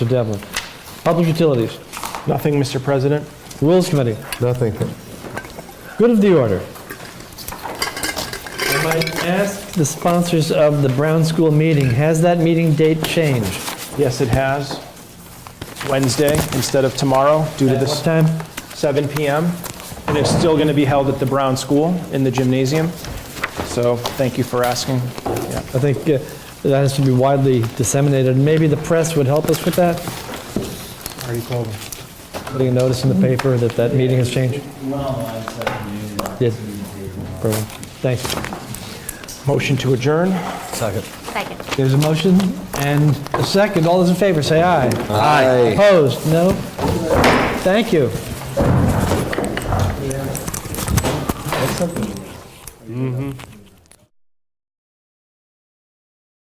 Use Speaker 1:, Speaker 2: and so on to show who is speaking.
Speaker 1: Mr. Devlin. Public Utilities,
Speaker 2: Nothing, Mr. President.
Speaker 1: Rules Committee,
Speaker 3: Nothing.
Speaker 1: good of the order. If I ask the sponsors of the Brown School meeting, has that meeting date changed?
Speaker 2: Yes, it has. Wednesday instead of tomorrow due to
Speaker 1: At
Speaker 2: this
Speaker 1: what time?
Speaker 2: 7 PM. And it's still going to be held at the Brown School in the gymnasium. So thank you for asking. Yeah.
Speaker 1: I think uh, that has to be widely disseminated. Maybe the press would help us with that? Putting a notice in the paper that that meeting has changed? Yes. Perfect. Thank you.
Speaker 2: Motion to adjourn.
Speaker 1: Second.
Speaker 4: Second.
Speaker 1: There's a motion and a second. All those in favor, say aye.
Speaker 3: Aye.
Speaker 1: Opposed? No? Thank you.